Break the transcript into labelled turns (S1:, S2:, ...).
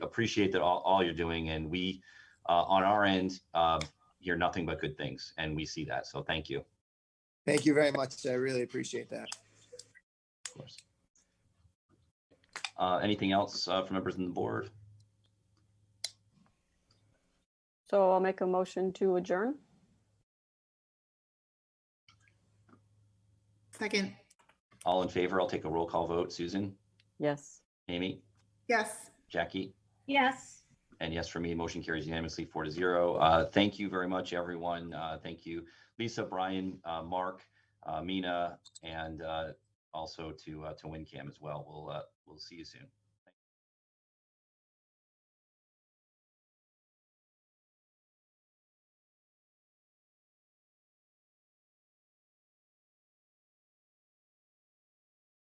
S1: appreciate that all, all you're doing. And we, uh, on our end, uh, hear nothing but good things, and we see that. So thank you. Of
S2: Thank you very much. I really appreciate that.
S1: course. Uh, anything else uh, from members on the board?
S3: So I'll make a motion to adjourn.
S4: Second,
S1: All in favor? I'll take a roll call vote. Susan,
S3: Yes.
S1: Amy,
S4: yes.
S1: Jackie,
S5: Yes.
S1: and yes for me. Motion carries unanimously, four to zero. Uh, thank you very much, everyone. Uh, thank you, Lisa, Brian, uh, Mark, uh, Mina, and uh, also to uh, to WinCam as well. We'll uh, we'll see you soon.